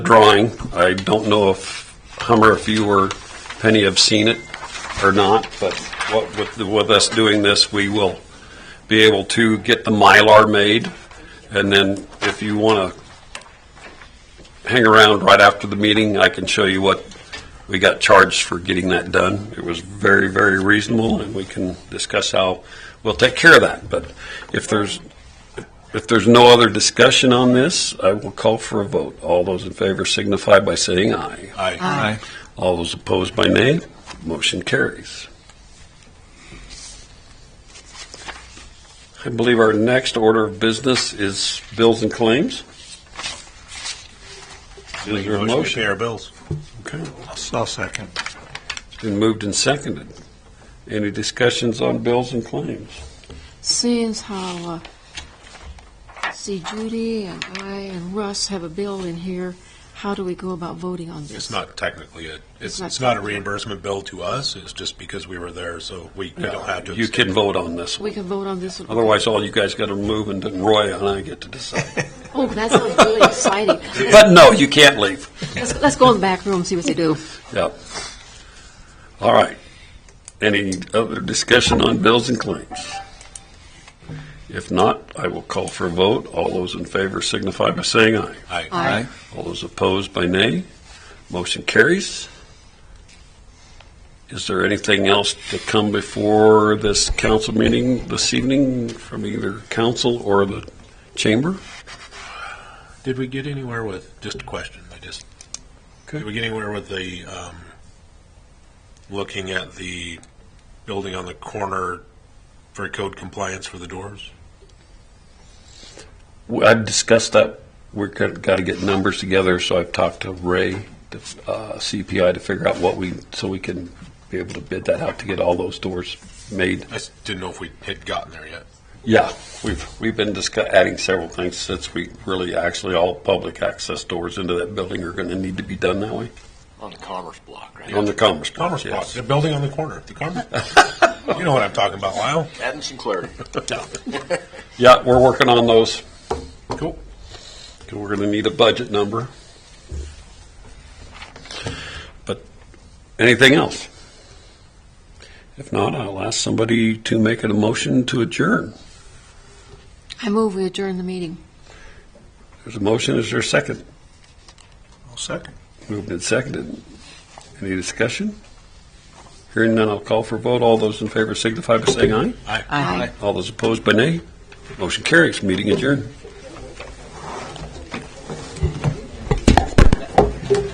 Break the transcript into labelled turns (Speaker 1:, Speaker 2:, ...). Speaker 1: drawing. I don't know if Hummer, if you or Penny have seen it or not, but what, with, the- with us doing this, we will be able to get the Mylar made. And then if you want to hang around right after the meeting, I can show you what we got charged for getting that done. It was very, very reasonable, and we can discuss how we'll take care of that. But if there's, if there's no other discussion on this, I will call for a vote. All those in favor signify by saying aye.
Speaker 2: Aye.
Speaker 1: All those opposed by nay. Motion carries. I believe our next order of business is bills and claims. Is there a motion?
Speaker 2: Pay our bills.
Speaker 1: Okay.
Speaker 2: I'll second.
Speaker 1: It's been moved and seconded. Any discussions on bills and claims?
Speaker 3: Seeing as how, uh, see Judy and I and Russ have a bill in here, how do we go about voting on this?
Speaker 2: It's not technically a, it's,
Speaker 3: not
Speaker 2: it's not a reimbursement bill to us, it's just because we were there, so we we don't have to.
Speaker 1: You can vote on this
Speaker 3: We
Speaker 1: one.
Speaker 3: can vote on this one.
Speaker 1: Otherwise, all you guys got to move and then Roy and I get to decide.
Speaker 3: Oh, that sounds really exciting.
Speaker 1: But no, you can't leave.
Speaker 3: Let's, let's go in the back room, and see what they do.
Speaker 1: Yep. All right. Any other discussion on bills and claims? If not, I will call for a vote. All those in favor signify by saying aye.
Speaker 2: Aye.
Speaker 3: Aye.
Speaker 1: All those opposed by nay. Motion carries. Is there anything else to come before this council meeting this evening from either council or the chamber?
Speaker 2: Did we get anywhere with, just a question, I just, did we get anywhere with the, um, looking at the building on the corner for code compliance for the doors?
Speaker 1: Well, I've discussed that. We're got to get numbers together, so I've talked to Ray, the, uh, CPI, to figure out what we, so we can be able to bid that out to get all those doors made.
Speaker 2: I s- didn't know if we had gotten there yet.
Speaker 1: Yeah, we've, we've been discuss, adding several things since we really, actually, all public access doors into that building are going to need to be done that way.
Speaker 4: On the Commerce Block, right?
Speaker 1: On the Commerce Block,
Speaker 2: Commerce Block,
Speaker 1: yes.
Speaker 2: the building on the corner, the Commerce. Block. You know what I'm talking about, Lyle?
Speaker 4: Adding some clarity.
Speaker 1: Yeah, we're working on those.
Speaker 2: Cool.
Speaker 1: We're going to need a budget number. But anything else? If not, I'll ask somebody to make a motion to adjourn.
Speaker 3: I move we adjourn the meeting.
Speaker 1: There's a motion, is there a second?
Speaker 2: I'll second.
Speaker 1: Moved and seconded. Any discussion? Hearing none, I'll call for a vote. All those in favor signify by saying aye.
Speaker 2: Aye.
Speaker 3: Aye.
Speaker 1: All those opposed by nay. Motion carries, meeting adjourned.